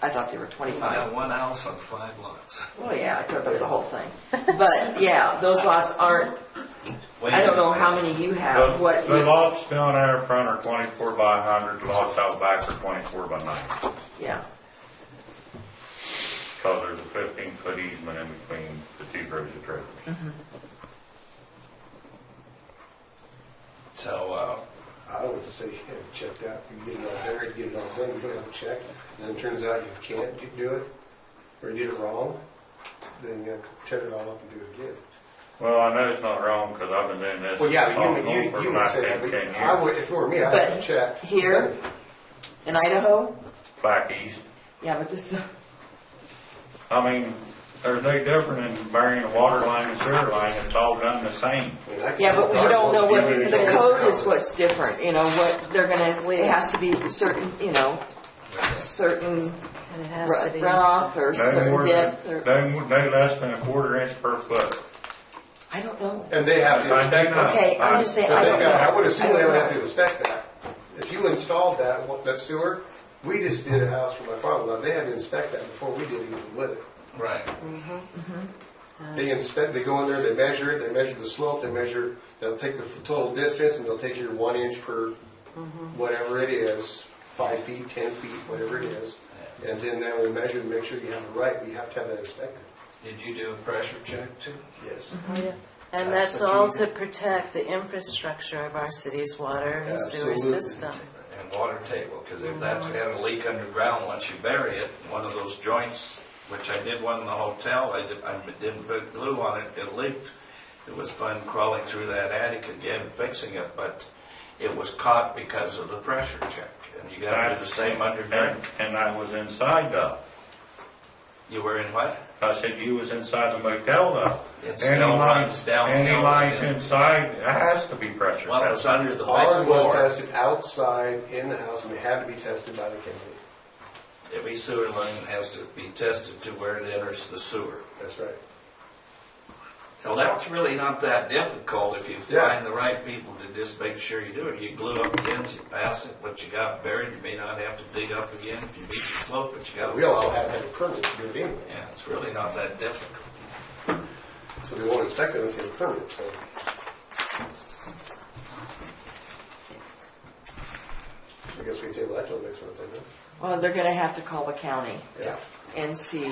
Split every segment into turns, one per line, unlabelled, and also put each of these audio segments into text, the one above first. I thought they were twenty-five.
Now, one house on five lots.
Well, yeah, I could have put the whole thing. But, yeah, those lots aren't, I don't know how many you have,
The
what,
the
you-
lots down there in front are twenty-four by hundred, lots out back are twenty-four by ninety,
yeah.
because there's a fifteen-foot easement in between the two rows of trailers.
So, uh,
I would say, yeah, check that, you get it all buried, get it all done, you don't check, and then it turns out you can't do- do it, or you did it wrong, then you have to tear it all up and do it again.
Well, I know it's not wrong, because I've been doing this.
Mm-hmm. Well, yeah,
off
but
and
you,
on for
you, you would say that,
19, 10
but I
years.
would, if it were me, I
But
would check.
here? In Idaho?
Back east,
Yeah, but this,
I mean, there's no different in burying a water line and sewer line, it's all done the same.
I mean, I could-
yeah, but we don't know what, the code is
Well,
what's different, you know, what they're gonna, it has to be certain, you know, certain
And it
ru-
has to be.
runoff or
No more
certain
than,
depth or,
no, more- no less than a quarter inch per foot.
I don't know.
And they have to.
I do not.
Okay, I'm just saying, I
But
don't
they
know.
got- I would assume they
don't
would have
know.
to inspect that. If you installed that, wa- that sewer, we just did a house for my father-in-law, they had to inspect that before we did anything with it.
right.
They inspect, they go in there, they measure it, they measure the slope, they measure, they'll take the total distance and they'll take your one inch per whatever it is, five feet, ten feet, whatever it is. And then they will measure and make sure you have it right, but you have to have that inspected.
Did you do a pressure check too?
Yes.
Oh, yeah. And
That's
that's
the
all
key.
to protect the infrastructure of our city's water and sewer
Absolutely.
system.
And water table, because if that's had a leak underground, once you bury it, one of those joints, which I did one in the hotel, I did- I didn't put glue on it, it leaked. It was fun crawling through that attic again, fixing it, but it was caught because of the pressure check. And you gotta do the same
And,
underground.
and I was inside though.
You were in what?
I said you was inside the motel though.
It
Any
still
line-
runs downhill.
Any lines inside, it has to be pressure
Well, it was
tested.
under the back
Ours was
floor.
tested outside in the house and they had to be tested by the county.
Every sewer line has to be tested to where it enters the sewer.
That's right.
So that's really not that difficult if you find the right people to just make sure you do it. You glue up against, you pass it, what you got buried, you may not have to dig up again if you meet the slope, but you got to.
We also had to have a permit to do it anyway,
Yeah, it's really not that difficult.
so they won't inspect it unless you have a permit, so. I guess we table that till next month, I know.
Well, they're gonna have to call the county
Yeah.
and see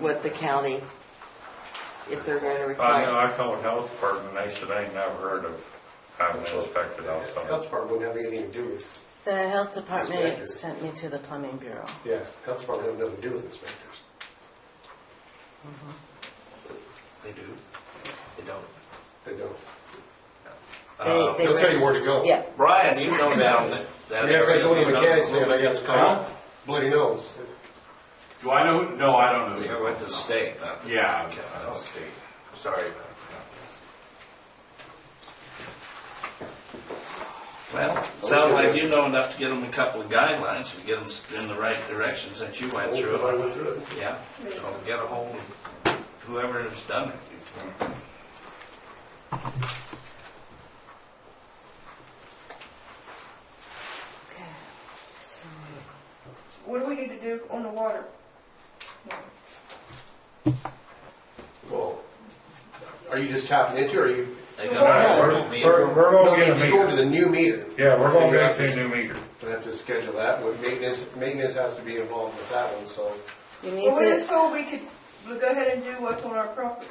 what the county, if they're gonna
I know,
require.
I called health department, they said they ain't never heard of having it inspected
Health
also.
department wouldn't have anything to do with,
The health
Inspector.
department sent me to the plumbing bureau.
yeah, health department has nothing to do with inspectors.
They do, they don't.
They don't.
They, they
They'll tell you
were,
where to go.
yeah,
Brian, you know down that. that
Yes, I
area,
go to
you know.
mechanics and I got the call,
Uh-huh.
bloody nose.
Do I know? No, I don't know.
You're with the state, not the.
Yeah,
Okay,
I don't see.
Sorry about that. Well, sounds like you know enough to get them a couple of guidelines, if you get them in the right directions that you went through.
Everybody went through it.
Yeah, so get a hold of whoever has done it.
okay. So,
What do we need to do on the water?
Well, are you just tapping into, or are you?
They got
We're-
a new meter.
We're, we're
No,
gonna get a
You go to
meter.
the new meter.
Yeah, we're gonna
You have
get
to-
a new meter.
We'll have to schedule that, Well, maintenance, maintenance has to be involved with that one, so.
You
Well,
need
we just
to,
told we could go ahead and do what's on our property.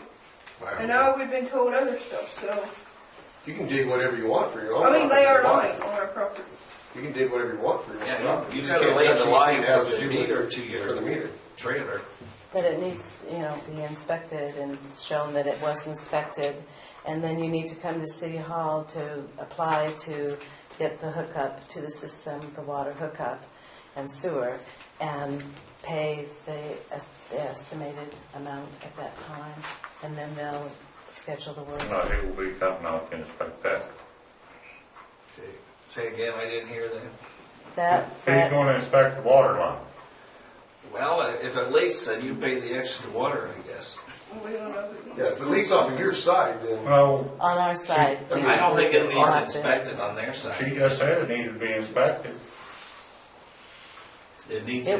And now we've been told other stuff, so,
You can dig whatever you want for your own.
I mean, lay our
property.
line on our property.
You can dig whatever you want for your own.
Yeah,
property.
you
just
gotta
can't
lay
touch
the
anything
line
that has
from
to
the
do with-
meter to your-
For the meter.
Trailer.
but it needs, you know, be inspected and shown that it was inspected. And then you need to come to City Hall to apply to get the hookup to the system, the water hookup and sewer, and pay the es- the estimated amount at that time, and then they'll schedule the work.
No, he will be coming out to inspect that.
Say- Say again, I didn't hear that.
That,
He's
that,
gonna inspect the water line.
Well, if it leaks, then you pay the extra water, I guess.
We don't know. if we
Yeah, if it leaks off of your side, then
Well,
on our side. we-
I don't think it
we
needs
want to-
inspected on their side.
she just said it needed to be inspected.
It needs
It